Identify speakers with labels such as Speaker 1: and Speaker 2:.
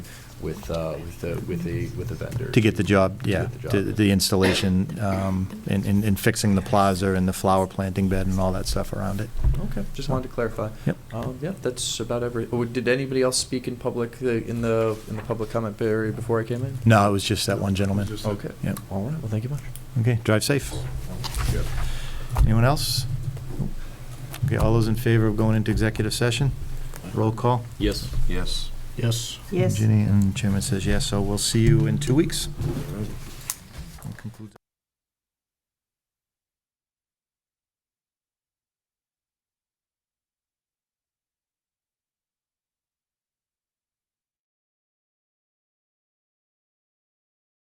Speaker 1: with, uh, with the, with the, with the vendor.
Speaker 2: To get the job, yeah,
Speaker 1: get the job
Speaker 2: to-
Speaker 1: done.
Speaker 2: the installation um, and- and and fixing the plaza and the flower planting bed and all that stuff around it.
Speaker 1: Okay, just wanted to clarify.
Speaker 2: Yep.
Speaker 1: Um, yeah, that's about every, oh, did anybody else speak in public, uh, in the, in the public comment area before I came in?
Speaker 2: No, it was just that one gentleman.
Speaker 1: Okay.
Speaker 2: Yep.
Speaker 1: All right, well, thank you much.
Speaker 2: Okay, drive safe. Anyone else? Okay, all those in favor of going into executive session? Roll call.
Speaker 3: Yes. Yes. Yes.
Speaker 4: Yes.
Speaker 2: Ginny and Chairman says yes, so we'll see you in two weeks. That concludes-